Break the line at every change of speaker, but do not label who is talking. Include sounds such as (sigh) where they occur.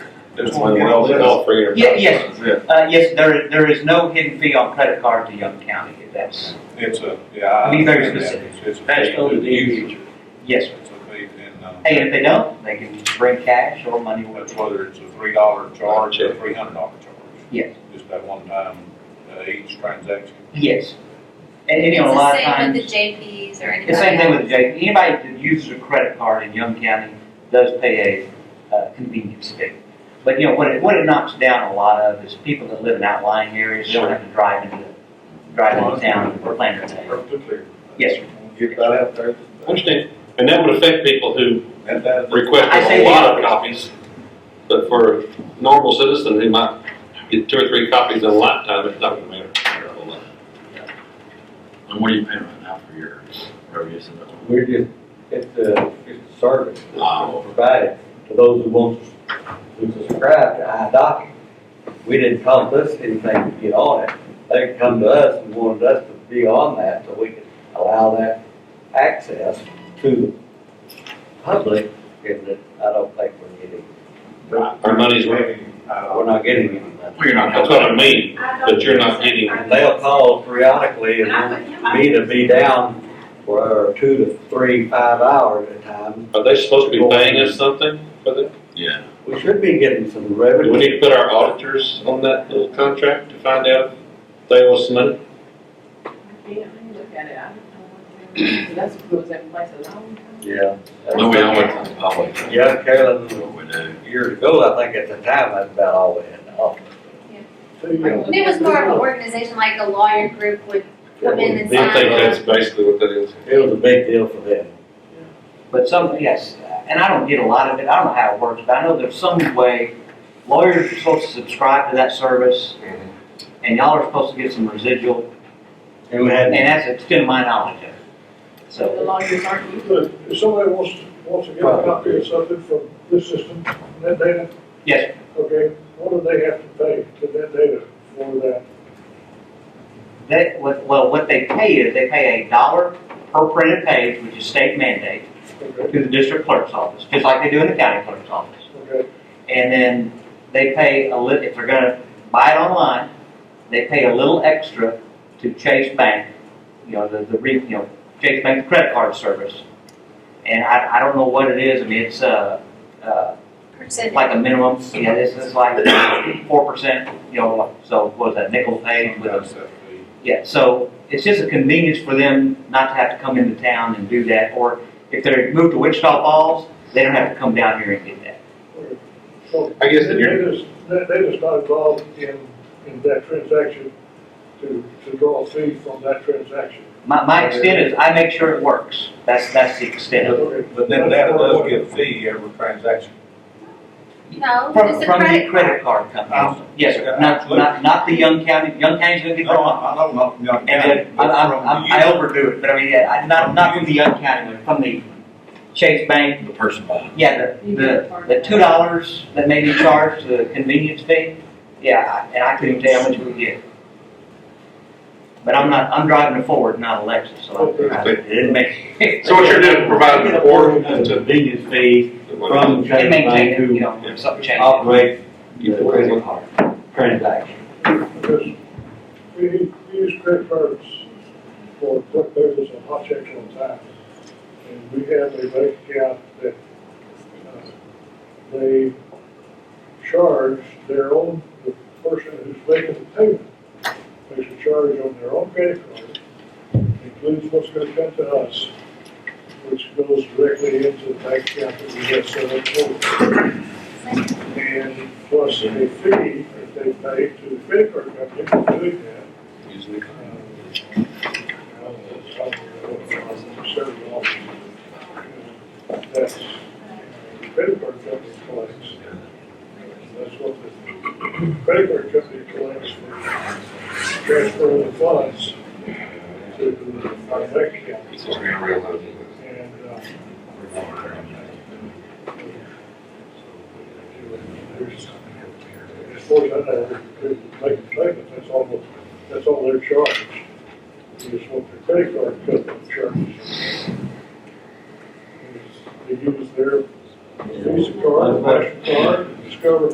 It's
It's
one
one
of
of
those.
all three. are-
Yeah, yes.
That's it.
Uh, yes, there, there is no hidden fee on credit card to Young County, that's,
It's a, yeah. I
Be very
understand that. It's a
That's
fee
only
to
the
the user.
individual.
yes.
It's a fee and, uh,
Hey, and if they don't, they can bring cash or money with
that's
them.
whether it's a three dollar charge or a
Check.
three hundred dollar charge.
Yes.
Just that one time, uh, each transaction.
Yes. And, and, you know, a
It's
lot of
the same
times,
with the JPs or anybody
the same thing with
else.
Jake, anybody that uses a credit card in Young County does pay a uh, convenience fee. But, you know, what it, what it knocks down a lot of is people that live in outlying areas, they don't have to drive into, drive into town or plan their day.
Perfectly clear.
Yes, sir.
Get that out there.
I Understand, and that would affect people who
And that is-
request
I
a
say
lot of
the-
copies. But for a normal citizen, they might get two or three copies in a lifetime, it's not gonna matter a whole lot.
And what are you paying right now for your road use?
We're just, it's a, it's a service
Wow.
provided to those who want, who subscribe to iDocket. We didn't come to us anything to get on it. They come to us and wanted us to be on that so we could allow that access to the public. And that I don't think we're getting,
Our money's worth,
we're not getting any money.
Well, you're not
that's
helping.
what I mean, but you're not getting,
They'll call periodically and want me to be down for two to three, five hours at a time.
are they supposed to be paying us something for that?
Yeah.
We should be getting some
Do we
revenue.
need to put our auditors on that little contract to find out if they owe us money?
Yeah, I can look at it, I don't know. That's, was that place a long time?
Yeah.
No, we always, always.
Yeah,
That's
Carolyn,
what we do.
years ago, I think at the time, that's about all we had in office.
And it was more of an organization, like a lawyer group would come in and
Do you think
sign
that's
up.
basically what that is?
It was a big deal for them.
But some, yes, and I don't get a lot of it, I don't know how it works, but I know there's some way lawyers are supposed to subscribe to that service, and y'all are supposed to get some residual,
And we
and
had,
that's the extent of my knowledge of it.
So the
So,
lawyers aren't used.
But if somebody wants, wants to get a copy of something from this system, that data,
yes,
okay, what do they have to pay to that data for that?
that, what- well, what they pay is, they pay a dollar per printed page, which is state mandate,
Okay,
to the district clerk's office, just like they do in the county clerk's office.
okay,
And then they pay a little, if they're gonna buy it online, they pay a little extra to Chase Bank, you know, the, the, re- you know, Chase Bank credit card service. And I, I don't know what it is, I mean, it's, uh, uh,
Percentage.
like a minimum, you know, this is like four percent, you know, like- so what is that, nickel pay with a
That's that fee.
yeah, so it's just a convenience for them not to have to come into town and do that, or if they're moved to Wichita Falls, they don't have to come down here and get that.
so.
I guess that
They
you're-
just, they, they just not involved in, in that transaction to, to draw a fee from that transaction.
My, my extent is I make sure it works. That's, that's the extent of it.
Okay.
But then that does get a fee every transaction.
No,
From,
it's a
from the
credit card.
credit card company.
Um,
Yes, sir.
yeah,
Not,
absolutely.
not, not the Young County, Young County's gonna get
No,
drawn.
I don't know, no,
And then, I, I, I- I overdo it, but I mean, yeah, I- not, not from the Young County, but from the Chase Bank.
The person buying.
Yeah, the, the, the two dollars that may be charged, the convenience fee. Yeah, I- and I couldn't tell how much we get. But I'm not, I'm driving a Ford, not a Lexus, so I, I- it didn't make. (laughs)
So what you're doing, providing an order
It's a
to.
convenience fee from
It
Chase
may
Bank
take, you
to
know, something changes.
operate the credit card transaction.
Because we, u- we use credit cards for quick payments and hot checks all the time. And we have a bank account that, uh, they charge their own, the person who's making the payment, makes a charge on their own credit card, includes what's gonna come to us, which goes directly into the bank account that we have set up for them and plus a fee that they pay to the credit card company for doing that. um, That's credit card company collects. That's what the credit card company collects for transferring the funds to uh, our bank account. And, uh, As far as I know, they're making payments, that's all, the- that's all they're charged. Is what the credit card company charges. They use their Visa card, Mastercard, Discover